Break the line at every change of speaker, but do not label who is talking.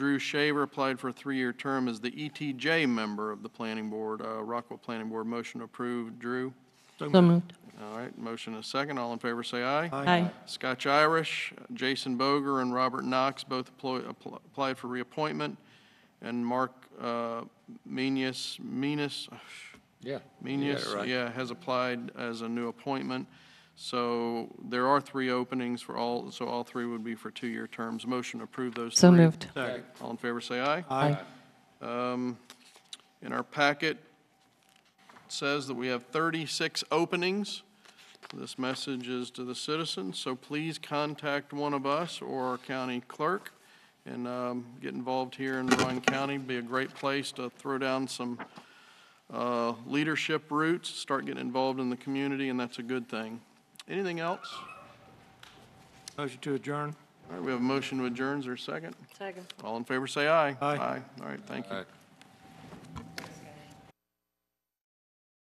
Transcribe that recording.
Drew Shaver applied for a three-year term as the ETJ member of the planning board, uh, Rockwell Planning Board. Motion approved. Drew?
So moved.
All right, motion is second. All in favor, say aye.
Aye.
Scotch Irish, Jason Boger and Robert Knox both applo- appl- applied for reappointment, and Mark uh, Menis, Menis,
Yeah.
Menis, yeah, has applied as a new appointment. So there are three openings for all, so all three would be for two-year terms. Motion to approve those three.
So moved.
All in favor, say aye.
Aye.
Um, In our packet, it says that we have 36 openings. This message is to the citizens, so please contact one of us or our county clerk and um, get involved here in Rowan County. Be a great place to throw down some uh, leadership roots, start getting involved in the community, and that's a good thing. Anything else?
Motion to adjourn.
All right, we have a motion to adjourn. Is there a second?
Second.
All in favor, say aye.
Aye.
All right, thank you.
Aye.